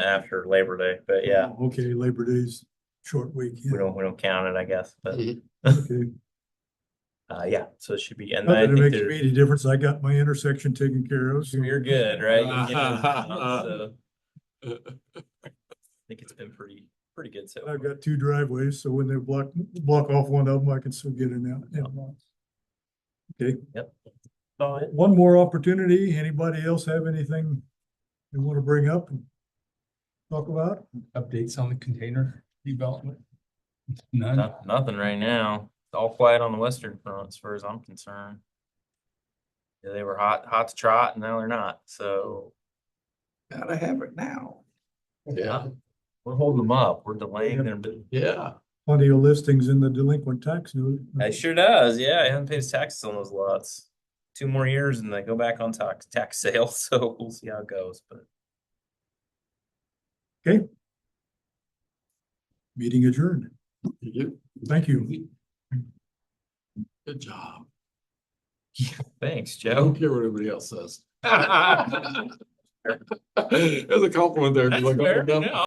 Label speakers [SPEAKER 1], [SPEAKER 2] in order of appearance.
[SPEAKER 1] after Labor Day, but yeah,
[SPEAKER 2] Oh, Okay, Labor Day's short week. yeah,
[SPEAKER 1] we don't, we don't count it, I guess, but,
[SPEAKER 2] okay.
[SPEAKER 1] uh, yeah, so it should be, and
[SPEAKER 2] Not
[SPEAKER 1] I
[SPEAKER 2] that it
[SPEAKER 1] think
[SPEAKER 2] makes
[SPEAKER 1] there-
[SPEAKER 2] me any difference. I got my intersection taken care of. so-
[SPEAKER 1] you're good, right? You get it now, so I think it's been pretty, pretty good so.
[SPEAKER 2] I've
[SPEAKER 1] far.
[SPEAKER 2] got two driveways, so when they block, block off one of them, I can still get in out. and out. Okay.
[SPEAKER 1] Yep.
[SPEAKER 2] One more opportunity. Anybody else have anything they want to bring up and talk about?
[SPEAKER 3] Updates on the container development? None.
[SPEAKER 1] Noth- Nothing right now. It's all quiet on the western front as far as I'm concerned. Yeah, They were hot, hot to trot and now they're not, so
[SPEAKER 3] Gotta have it now.
[SPEAKER 1] Yeah. we're holding them up. We're delaying them.
[SPEAKER 3] yeah.
[SPEAKER 2] Plenty of listings in the delinquent tax note.
[SPEAKER 1] It sure does, yeah. I haven't paid his taxes on those lots. Two more years and they go back on tax, tax sale, so we'll see how it goes, but.
[SPEAKER 2] Meeting adjourned.
[SPEAKER 3] You,
[SPEAKER 2] Thank you.
[SPEAKER 3] good job.
[SPEAKER 1] Thanks,
[SPEAKER 3] I
[SPEAKER 1] Joe.
[SPEAKER 3] don't care what everybody else says. There's a compliment there. "Oh, if you look up and down.